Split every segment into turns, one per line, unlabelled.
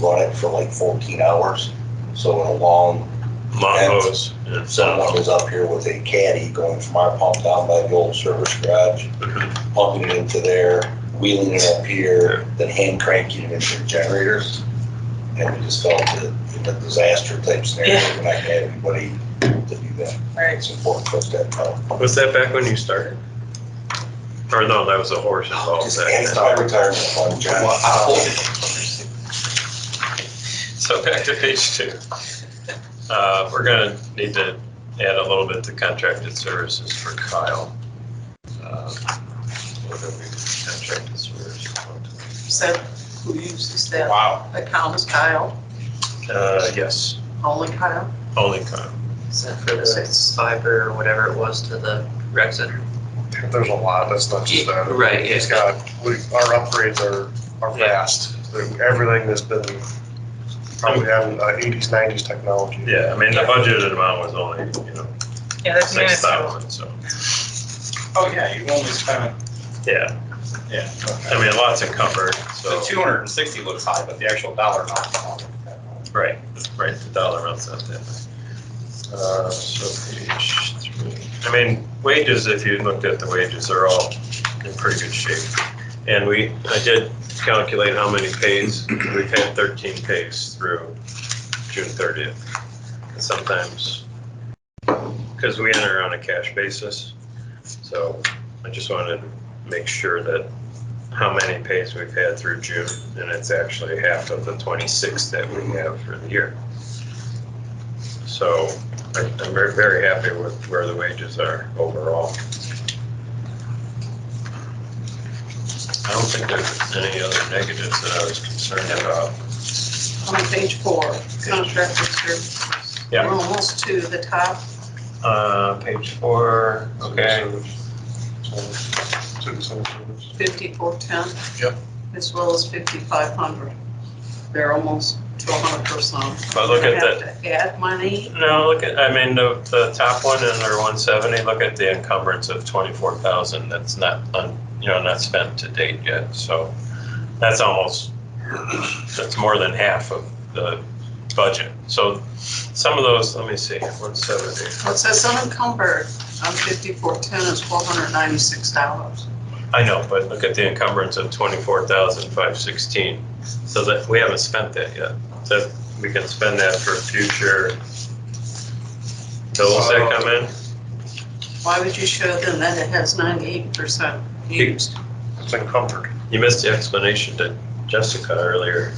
run it for like fourteen hours. So in a long,
Long
And-
hose, yeah,
someone
so,
was up here with a caddy going from our pump down by the old service garage, pumping it into there, wheeling it up here, then hand cranking it into the generators. And we just felt that in a disaster type scenario,
Yeah.
we're not gonna have anybody to do that.
Right.
It's important for us to have help.
was that back when you started? Or no, that was a horse involved
Just
back
add
then.
to my retirement fund, John.
So back to page two. Uh, We're gonna need to add a little bit to contracted services for Kyle. Uh, What are we, contracted services?
Said who uses that
Wow.
account is Kyle,
Uh, yes,
only Kyle.
only Kyle.
Is that for the six fiber or whatever it was to the rec center?
There's a lot, that's not just that.
Right, yeah.
He's got, we, our upgrades are, are
Yeah.
vast. Everything that's been, probably having uh, eighties, nineties technology.
Yeah, I mean, the budgeted amount was only, you know,
Yeah, that's
six thousand, so,
Oh, yeah, you only spent,
yeah.
yeah.
I mean, lots encumbered, so.
The two hundred and sixty looks high, but the actual dollar amount.
Right, right, the dollar amount's not that high. Uh, So page three. I mean, wages, if you looked at the wages, they're all in pretty good shape. And we, I did calculate how many pays, we've had thirteen pays through June thirtieth. Sometimes, because we enter on a cash basis, so I just wanted to make sure that how many pays we've had through June, and it's actually half of the 26 that we have for the year. So I- I'm very, very happy with where the wages are overall. I don't think there's any other negatives that I was concerned about.
On page four, contracted services.
Yeah.
We're almost to the top.
Uh, Page four, okay.
Citizen service.
5410.
Yep.
As well as 5500. They're almost to 100%.
But look at
We're gonna have to Add money,
No, look at, I mean, the, the top one in our one seventy, look at the encumbrance of twenty-four thousand that's not, un- you know, not spent to date yet, so that's almost, that's more than half of the budget. So some of those, let me see, one seventy,
it says unencumbered on 5410 is $1,296.
I know, but look at the encumbrance of twenty-four thousand five sixteen, so that, we haven't spent that yet. That, we can spend that for future bills that come in.
Why would you show them that it has 98% used?
It's encumbered.
You missed the explanation to Jessica earlier.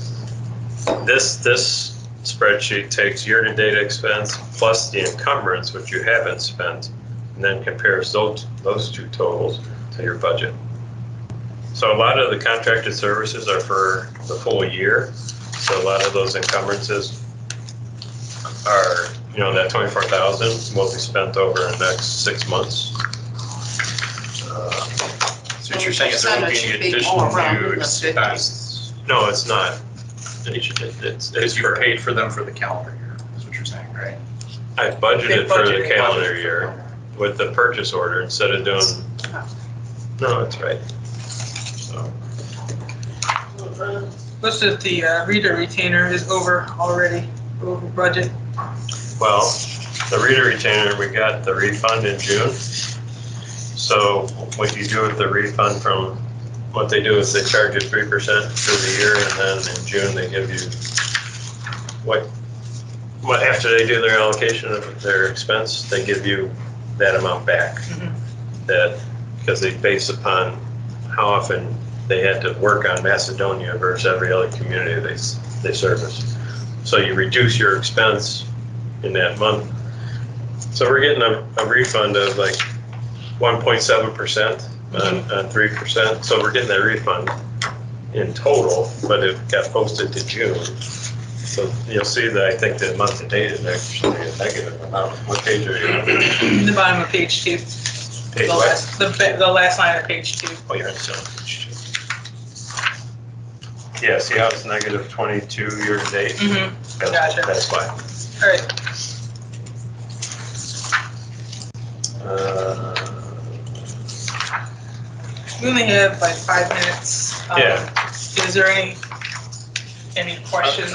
This, this spreadsheet takes year-to-date expense plus the encumbrance, which you haven't spent, and then compares those, those two totals to your budget. So a lot of the contracted services are for the full year, so a lot of those encumbrances are, you know, that twenty-four thousand will be spent over the next six months. Uh,
So what you're saying is there would be
Percentage
an
would be
additional
more around in
new
the
expense
No, it's not. It's, it's, it's
because you
for-
paid for them for the calendar year, is what you're saying, right?
I budgeted
They
for the
budgeted.
calendar year with the purchase order instead of doing, no, that's right. So,
Looks that the uh, reader retainer is over already, over budget.
Well, the reader retainer, we got the refund in June. So what you do with the refund from, what they do is they charge you three percent for the year and then in June they give you what, what, after they do their allocation of their expense, they give you that amount back.
Mhm.
That, because they base upon how often they had to work on Macedonia versus every other community they, s- they service. So you reduce your expense in that month. So we're getting a, a refund of like one point seven percent on, on three percent, so we're getting that refund in total, but it got posted to June. So you'll see that I think the month to date is actually a negative amount. What page are you on?
The bottom of page two.
Page
The
what?
last, the, ba- the last line of page two.
Oh, you're on sale. page two. Yeah, see how it's negative twenty-two year to date?
Mm-hmm.
That's-
Gotcha.
That's why.
All right,
Uh,
we only have like five minutes. Um,
Yeah. Uh,
Is there any any questions?